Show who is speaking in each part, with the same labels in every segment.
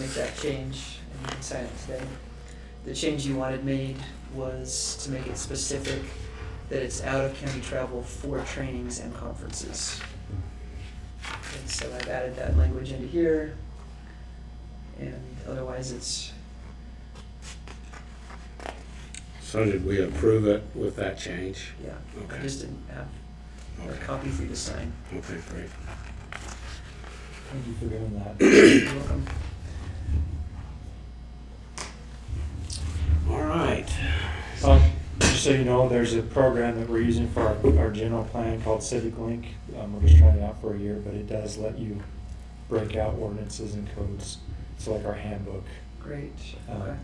Speaker 1: make that change and you can sign it today. The change you wanted made was to make it specific that it's out of county travel for trainings and conferences. And so I've added that language into here. And otherwise, it's,
Speaker 2: So did we approve it with that change?
Speaker 1: yeah, I
Speaker 2: Okay,
Speaker 1: just didn't have a
Speaker 2: okay,
Speaker 1: copy for you to sign.
Speaker 2: okay, great.
Speaker 3: Thank you for doing that.
Speaker 1: You're welcome.
Speaker 2: All right.
Speaker 3: Um, Just so you know, there's a program that we're using for our, our general plan called Civic Link. Um, we're just trying it out for a year, but it does let you break out ordinances and codes. It's like our handbook.
Speaker 1: Great,
Speaker 3: Um,
Speaker 1: okay.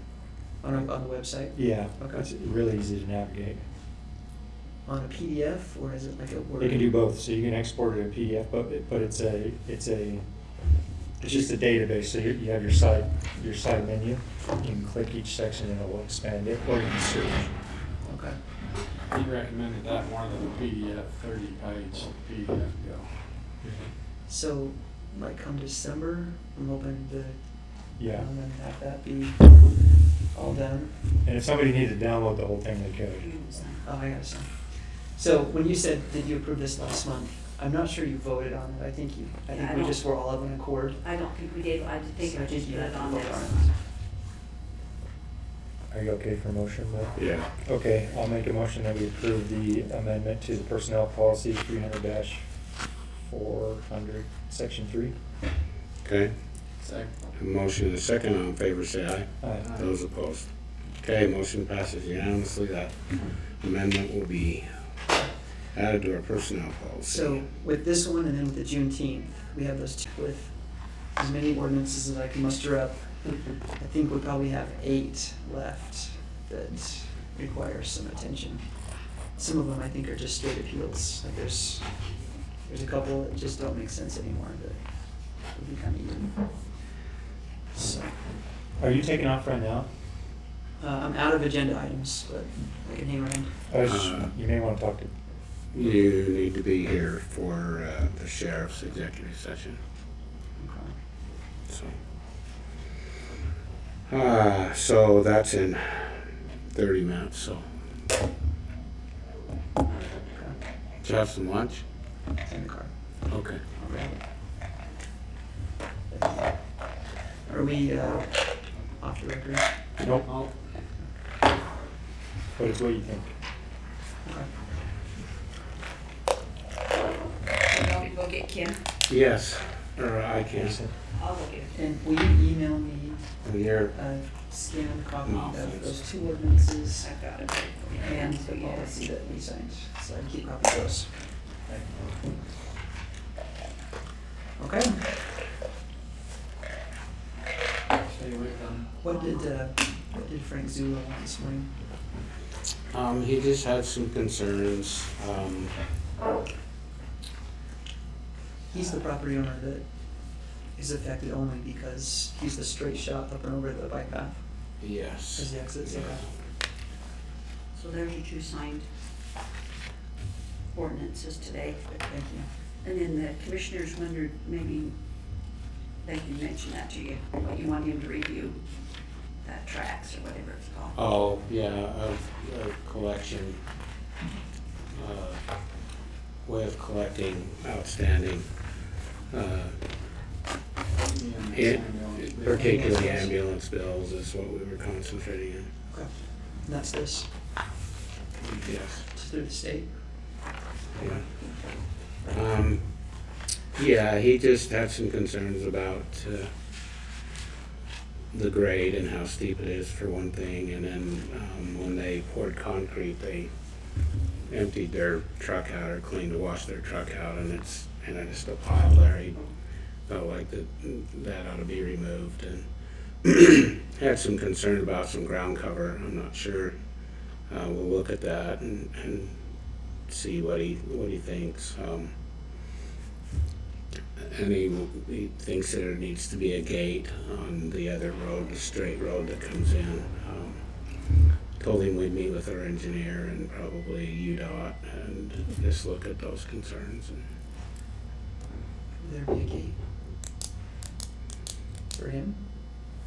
Speaker 1: On, a- on the website?
Speaker 3: Yeah,
Speaker 1: Okay.
Speaker 3: it's really easy to navigate.
Speaker 1: On a PDF or is it like a Word?
Speaker 3: It can do both, so you can export it to PDF, but, it- but it's a, it's a, it's just a database, so you, you have your side, your side menu. You can click each section and it will expand it, or you can search.
Speaker 1: Okay,
Speaker 4: He recommended that more than the PDF, thirty page PDF go.
Speaker 1: so like come December, I'm hoping to
Speaker 3: Yeah,
Speaker 1: um, and have that be all done.
Speaker 3: and if somebody needed to download the whole thing, they could.
Speaker 1: Oh, I got some. So when you said that you approved this last month, I'm not sure you voted on it. I think you, I
Speaker 5: Yeah,
Speaker 1: think
Speaker 5: I
Speaker 1: we
Speaker 5: don't-
Speaker 1: just were all of an accord.
Speaker 5: I don't think we did, I just think
Speaker 1: So I
Speaker 5: I just
Speaker 1: think you have
Speaker 5: put it
Speaker 1: to
Speaker 5: on
Speaker 1: vote
Speaker 5: there.
Speaker 1: on it.
Speaker 3: Are you okay for motion, Bill?
Speaker 2: Yeah,
Speaker 3: Okay, I'll make a motion that we approve the amendment to the personnel policy three hundred dash four hundred, section three.
Speaker 2: okay.
Speaker 4: Second.
Speaker 2: A Motion and a second, all in favor, say aye.
Speaker 3: Aye.
Speaker 2: Those opposed? Okay, motion passes unanimously. That amendment will be added to our personnel policy.
Speaker 1: So with this one and then with the Juneteenth, we have those two with as many ordinances as I can muster up. I think we probably have eight left that require some attention. Some of them I think are just straight appeals, like there's, there's a couple that just don't make sense anymore, but would be kind of even. So,
Speaker 3: Are you taking off right now?
Speaker 1: uh, I'm out of agenda items, but I can hang around.
Speaker 3: I was just-
Speaker 2: Uh.
Speaker 3: You may wanna talk to,
Speaker 2: You need to be here for uh, the sheriff's executive session, so. Uh, so that's in thirty minutes, so. Did you have some lunch?
Speaker 1: It's in the car.
Speaker 2: Okay.
Speaker 1: I'll grab it. Are we uh, off the record?
Speaker 3: nope,
Speaker 4: Oh,
Speaker 3: but it's what you think.
Speaker 5: I'll go get Kim,
Speaker 2: Yes, or I can.
Speaker 3: Jason?
Speaker 5: I'll go get her.
Speaker 1: And will you email me uh,
Speaker 2: Here,
Speaker 1: a scanned copy
Speaker 2: No,
Speaker 1: of
Speaker 2: thanks.
Speaker 1: those two ordinances
Speaker 5: I've got it.
Speaker 1: and the policy that we signed? So I can keep copy of those. Okay,
Speaker 4: stay with them.
Speaker 1: what did, uh, what did Frank Zulo want this morning?
Speaker 2: um, he just had some concerns, um,
Speaker 1: He's the property owner that is affected only because he's the straight shot up and over the bike path as
Speaker 2: yes.
Speaker 1: the exits. Okay.
Speaker 5: So there's your two signed ordinances today.
Speaker 1: Thank you.
Speaker 5: And then the commissioners wondered, maybe they can mention that to you, what you want him to review, that tracks or whatever it's called.
Speaker 2: Oh, yeah, a, a collection, uh, way of collecting outstanding, uh,
Speaker 4: Me and
Speaker 2: It-
Speaker 4: Samuel.
Speaker 2: particularly ambulance bills is what we were concentrating on.
Speaker 1: And that's this,
Speaker 2: Yes.
Speaker 1: it's through the state.
Speaker 2: Yeah. Um, yeah, he just had some concerns about, uh, the grade and how steep it is for one thing, and then, um, when they poured concrete, they emptied their truck out or cleaned to wash their truck out, and it's, and it's just a pile there. He felt like that, that ought to be removed, and had some concern about some ground cover, I'm not sure. Uh, we'll look at that and, and see what he what he thinks. Um, and he, he thinks that there needs to be a gate on the other road, the straight road that comes in. Um, told him we'd meet with our engineer and probably UDOT and just look at those concerns.
Speaker 1: Would there be a gate? For him?